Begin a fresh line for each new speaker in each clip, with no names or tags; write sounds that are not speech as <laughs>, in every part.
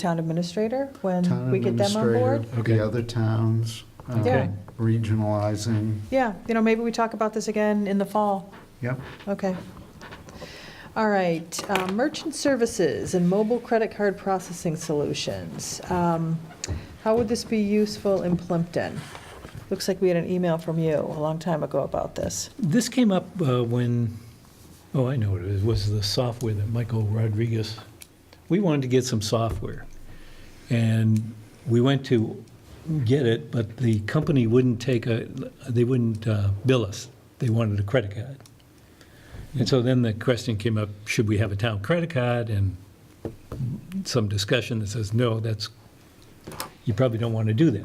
town administrator when
Town
we get them on board.
administrator, the other towns, um,
Yeah. Okay.
regionalizing.
Yeah, you know, maybe we talk about this again in the fall.
Yep.
Okay. All right, uh, merchant services and mobile credit card processing solutions. Um, How would this be useful in Plimpton? Looks like we had an email from you a long time ago about this.
This came up uh, when, oh, I know what it is, was the software that Michael Rodriguez, we wanted to get some software. And we went to get it, but the company wouldn't take a, they wouldn't uh, bill us. They wanted a credit card. And so then the question came up, should we have a town credit card? And some discussion that says, no, that's, you probably don't want to do that.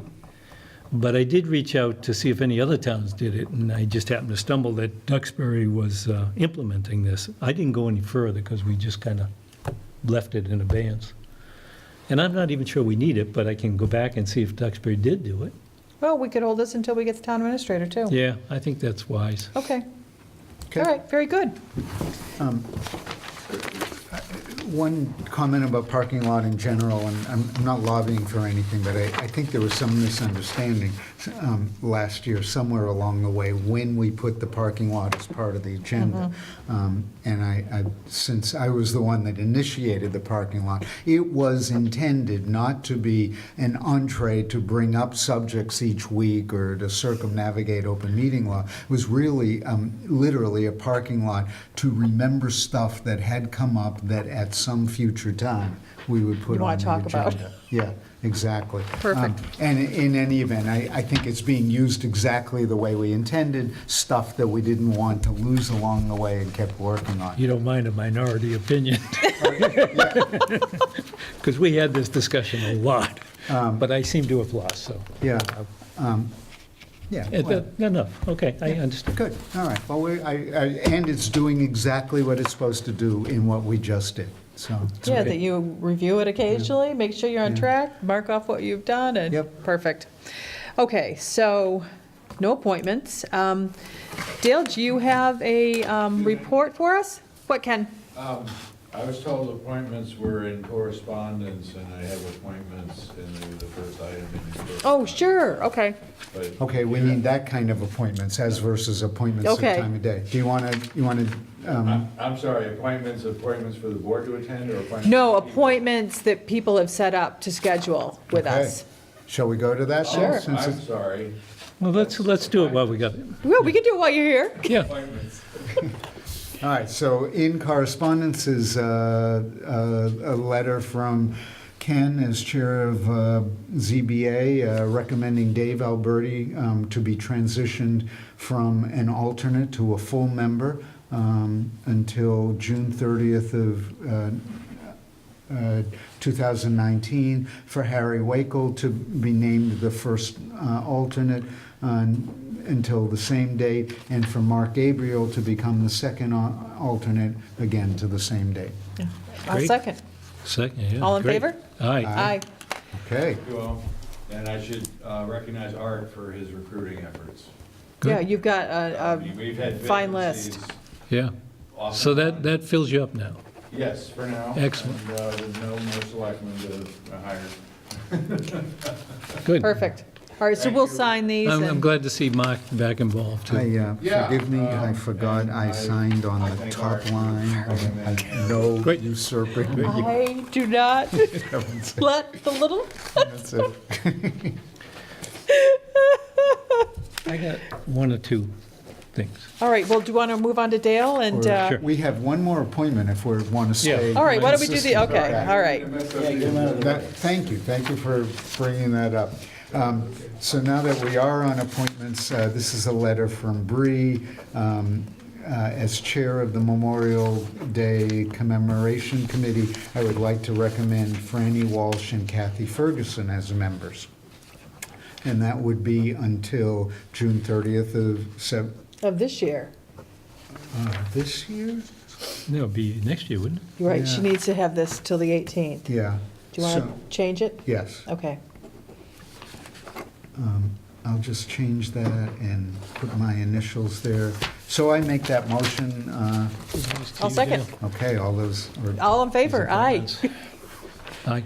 But I did reach out to see if any other towns did it, and I just happened to stumble that Duxbury was uh, implementing this. I didn't go any further because we just kind of left it in abeyance. And I'm not even sure we need it, but I can go back and see if Duxbury did do it.
Well, we could hold this until we get the town administrator, too.
Yeah, I think that's wise.
Okay,
Okay.
all right, very good.
One comment about parking lot in general, and I'm I'm not lobbying for anything, but I, I think there was some misunderstanding um, last year, somewhere along the way, when we put the parking lot as part of the agenda.
Mm-hmm.
Um, And I, I- since I was the one that initiated the parking lot, it was intended not to be an entree to bring up subjects each week or to circumnavigate open meeting law. It was really, um, literally, a parking lot to remember stuff that had come up that at some future time we would put
You wanna
on
talk
the
about.
agenda. Yeah, exactly.
Perfect.
Um, And in any event, I, I think it's being used exactly the way we intended, stuff that we didn't want to lose along the way and kept working on.
You don't mind a minority opinion? <laughs> Because we had this discussion a lot, but I seem to have lost, so.
Yeah, um, yeah.
Eh,
well,
that- Enough, okay, I understand.
Good, all right. Well, we, I, I- and it's doing exactly what it's supposed to do in what we just did, so.
Yeah, that you review it occasionally, make sure you're on
Yeah.
track, mark off what you've done, and.
Yep.
Perfect. Okay, so, no appointments. Um, Dale, do you have a um, report for us? What, Ken?
Um, I was told appointments were in correspondence, and I have appointments, and they were the first item in correspondence.
Oh, sure, okay.
But
Okay, we need that kind of appointments, as versus appointments at
Okay.
time of day. Do you want to, you um, want to,
I'm, I'm sorry, appointments, appointments for the board to attend, or appointments?
No,
for people?
appointments that people have set up to schedule with
Okay.
us.
shall we go to that? then,
Sure.
Oh,
since
I'm
it's-
sorry.
Well, let's, let's do it while we got it.
Well, we can do it while you're here.
Yeah,
Appointments.
All right, so in correspondence is uh, a a letter from Ken as chair of uh, ZBA uh, recommending Dave Alberti um, to be transitioned from an alternate to a full member um, until June 30th of uh, uh, 2019, for Harry Wakel to be named the first uh, alternate on- until the same date, and for Mark Gabriel to become the second al- alternate, again to the same date.
I'll
Great.
second.
second, yeah.
All in
great.
favor?
Aye.
Aye.
Okay,
You all. And I should uh, recognize Art for his recruiting efforts.
Good.
Yeah, you've got
I
a,
mean, We've had
a Uh, fine list.
vacancies
Yeah,
off
so
and
that,
on.
that fills you up now.
Yes, for now.
Excellent.
And uh, there's no more selectmen to to hire.
Good.
Perfect. All right, so
Thank
we'll
you.
sign these
I'm, I'm
and-
glad to see Mark back involved, too.
I, uh,
Yeah,
forgive me, I
um,
forgot
and
I
I-
signed on
I
the
think
top
our-
line. I- I- No
Great.
usurping.
I do not <laughs> let the little,
That's it.
I got one or two things.
all right, well, do you want to move on to Dale and?
Or-
uh,
Sure.
We have one more appointment if we want to
Yeah.
stay.
All right, why don't we do the,
consistent.
okay, all right.
That- Thank you, thank you for bringing that up. Um, So now that we are on appointments, uh, this is a letter from Bree um, uh, as Chair of the Memorial Day Commemoration Committee. I would like to recommend Franny Walsh and Kathy Ferguson as members. And that would be until June 30th of sep-
Of this year.
uh, this year?
That'll be next year, wouldn't
You're right, she
Yeah.
needs to have this till the 18th. Do
Yeah.
you want
So-
to change it?
Yes.
Okay.
I'll just change that and put my initials there. So I make that motion. uh,
it?
I'll second.
Okay, all those, are-
All in favor? Aye.
Aye.